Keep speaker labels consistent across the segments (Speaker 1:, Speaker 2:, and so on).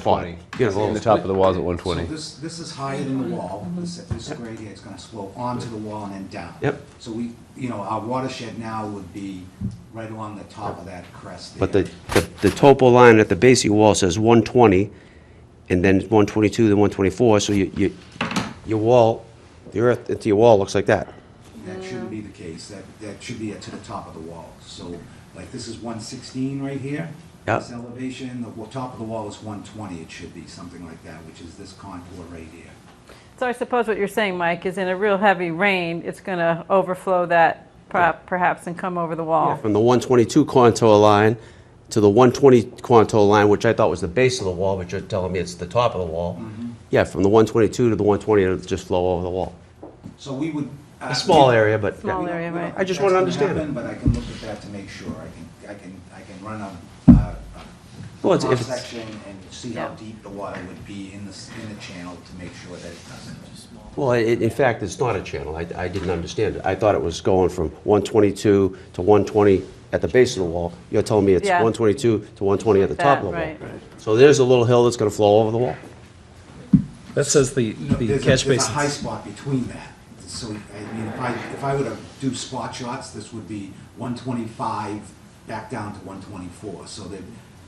Speaker 1: Twenty.
Speaker 2: He has a
Speaker 1: In
Speaker 2: little
Speaker 1: the top of the walls at one
Speaker 3: So
Speaker 1: twenty.
Speaker 3: this, this is higher than the wall, this, this grade here is gonna slope onto the wall and then down.
Speaker 2: Yep.
Speaker 3: So we, you know, our watershed now would be right along the top of that crest
Speaker 2: But
Speaker 3: there.
Speaker 2: the, the- the topo line at the base of your wall says 120, and then 122, then 124, so you, you, your wall, the earth into your wall looks like that.
Speaker 3: That shouldn't be the case, that, that should be to the top of the wall. So, like, this is one sixteen right here.
Speaker 2: Yep.
Speaker 3: This elevation, the wa- top of the wall is one twenty, it should be something like that, which is this contour right here.
Speaker 4: So I suppose what you're saying, Mike, is in a real heavy rain, it's going to overflow that prop perhaps and come over the wall.
Speaker 2: From the 122 contour line to the 120 contour line, which I thought was the base of the wall, but you're telling me it's the top of the wall. Yeah, from the 122 to the 120, it'll just flow over the wall.
Speaker 3: So we would. uh,
Speaker 2: A small area, but.
Speaker 3: We
Speaker 4: Small
Speaker 3: don't- we
Speaker 4: area,
Speaker 3: don't
Speaker 4: right.
Speaker 3: think
Speaker 2: I just
Speaker 3: that's
Speaker 2: wanna
Speaker 3: gonna
Speaker 2: understand it.
Speaker 3: happen, But I can look at that to make sure, I can, I can, I can run a, uh,
Speaker 2: Well,
Speaker 3: a
Speaker 2: it's- if it's-
Speaker 3: cross-section and see how
Speaker 4: Yeah.
Speaker 3: deep the water would be in the, s- in the channel to make sure that it doesn't.
Speaker 2: Well, i in fact, it's not a channel. I, I didn't understand it. I thought it was going from 122 to 120 at the base of the wall. You're telling me it's
Speaker 4: Yeah.
Speaker 2: 122 to 120 at the top of the wall.
Speaker 4: That, right.
Speaker 2: So there's a little hill that's going to flow over the wall.
Speaker 5: That says the,
Speaker 3: No,
Speaker 5: the
Speaker 3: there's a-
Speaker 5: catch
Speaker 3: There's a high
Speaker 5: basin.
Speaker 3: spot between that, so, I mean, if I, if I were to do spot shots, this would be one twenty-five back down to one twenty-four, so there,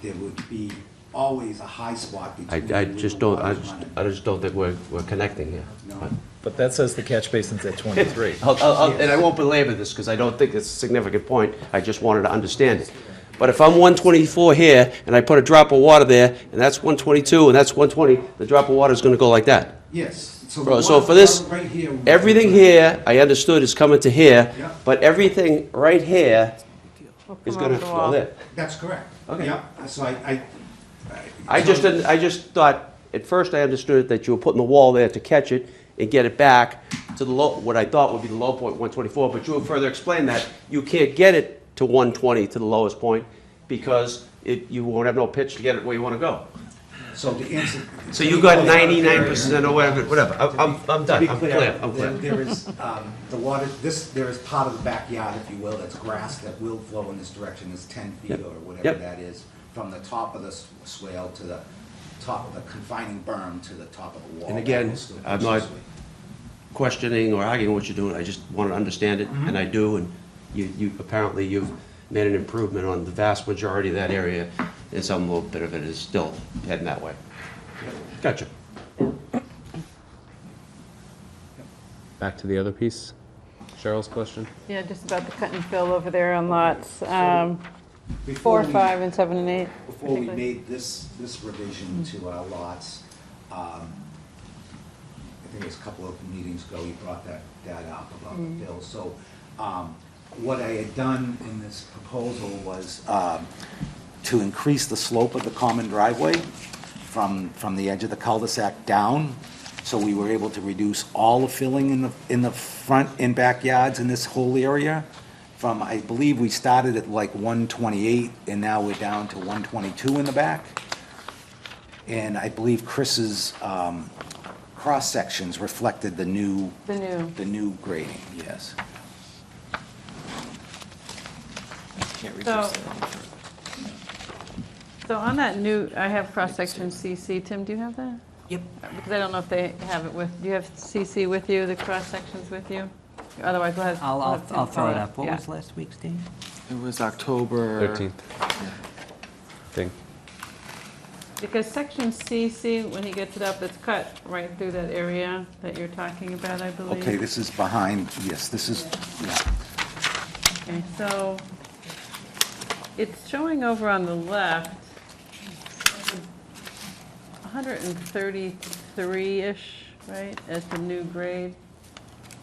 Speaker 3: there would be always a high spot
Speaker 2: I,
Speaker 3: between.
Speaker 2: I
Speaker 3: where the
Speaker 2: just don't, I
Speaker 3: water's
Speaker 2: just,
Speaker 3: running.
Speaker 2: I just don't think we're, we're connecting here.
Speaker 3: No.
Speaker 5: But that says the catch basin's at 23.
Speaker 2: I'll- I'll- I'll- And I won't belabor this, because I don't think it's a significant point, I just wanted to understand it. But if I'm 124 here, and I put a drop of water there, and that's 122, and that's 120, the drop of water is going to go like that.
Speaker 3: Yes, so. the
Speaker 2: Bro, So
Speaker 3: water-
Speaker 2: for this,
Speaker 3: right here would-
Speaker 2: everything here, I understood is coming to here,
Speaker 3: Yeah.
Speaker 2: but everything right here
Speaker 4: Will come
Speaker 2: is
Speaker 4: over
Speaker 2: going to
Speaker 4: the
Speaker 2: flow
Speaker 4: wall.
Speaker 2: there.
Speaker 3: That's correct.
Speaker 2: Okay.
Speaker 3: Yep, so I, I.
Speaker 2: I just didn't, I just thought, at first I understood that you were putting the wall there to catch it and get it back to the low, what I thought would be the low point, 124, but you have further explained that you can't get it to 120, to the lowest point, because it, you won't have no pitch to get it where you want to go.
Speaker 3: So to answer.
Speaker 2: So you got 99% or whatever, whatever, I'm, I'm- I'm
Speaker 3: To be
Speaker 2: done, I'm clear, I'm
Speaker 3: there-
Speaker 2: clear.
Speaker 3: There is, um, the water, this, there is part of the backyard, if you will, that's grass that will flow in this direction, it's ten feet or whatever
Speaker 2: Yep.
Speaker 3: that is, from the top of the s- swale to the top of the confining berm to the top of the wall.
Speaker 2: And again, I'm not- Questioning or arguing what you're doing, I just want to understand it, and I do, and you, you, apparently you've made an improvement on the vast majority of that area, and some little bit of it is still heading that way. Gotcha.
Speaker 1: Back to the other piece, Cheryl's question.
Speaker 4: Yeah, just about the cut and fill over there on lots um,
Speaker 3: Before
Speaker 4: four,
Speaker 3: we-
Speaker 4: five, and seven, and eight.
Speaker 3: Before we
Speaker 4: particularly.
Speaker 3: made this, this revision to our lots, um, I think it was a couple of meetings ago, you brought that, that up about the bill. So, um, what I had done in this proposal was, um, to increase the slope of the common driveway from, from the edge of the cul-de-sac down. So we were able to reduce all the filling in the, in the front and backyards in this whole area from, I believe we started at like one twenty-eight and now we're down to one twenty-two in the back. And I believe Chris's, um, cross-sections reflected the new,
Speaker 4: The new,
Speaker 3: the new grading, yes.
Speaker 4: so. So on that new, I have cross-section CC. Tim, do you have that? Yep. Because I don't know if they have it with, do you have CC with you, the cross-sections with you? Otherwise, we'll have.
Speaker 6: I'll,
Speaker 4: we'll
Speaker 6: I'll,
Speaker 4: have Tim
Speaker 6: I'll throw it
Speaker 4: follow.
Speaker 6: up. What
Speaker 4: Yeah.
Speaker 6: was last week's date?
Speaker 7: It was October.
Speaker 1: Thirteenth. Thing.
Speaker 4: Because section CC, when he gets it up, it's cut right through that area that you're talking about, I believe.
Speaker 3: Okay, this is behind, yes, this is, yeah.
Speaker 4: Okay, so it's showing over on the left, 133-ish, right, as the new grade?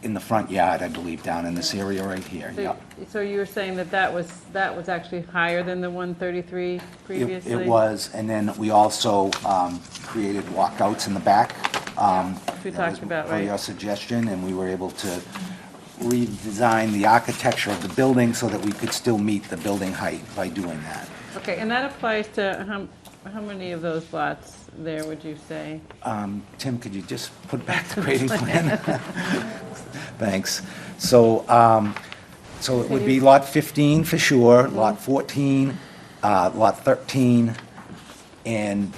Speaker 3: in the front yard, I believe, down in this area right here,
Speaker 4: So-
Speaker 3: yep.
Speaker 4: So you were saying that that was, that was actually higher than the 133
Speaker 3: It-
Speaker 4: previously?
Speaker 3: It was, and then we also um, created walkouts in the back. um,
Speaker 4: Yeah, which we
Speaker 3: that
Speaker 4: talked
Speaker 3: was
Speaker 4: about,
Speaker 3: Per
Speaker 4: right.
Speaker 3: your suggestion, and we were able to redesign the architecture of the building so that we could still meet the building height by doing that.
Speaker 4: Okay, and that applies to how, how many of those lots there, would you say?
Speaker 3: Tim, could you just put back the grading plan? Thanks. So, um, so it would be Lot 15
Speaker 4: Mhm.
Speaker 3: for sure, Lot 14, uh, Lot 13, and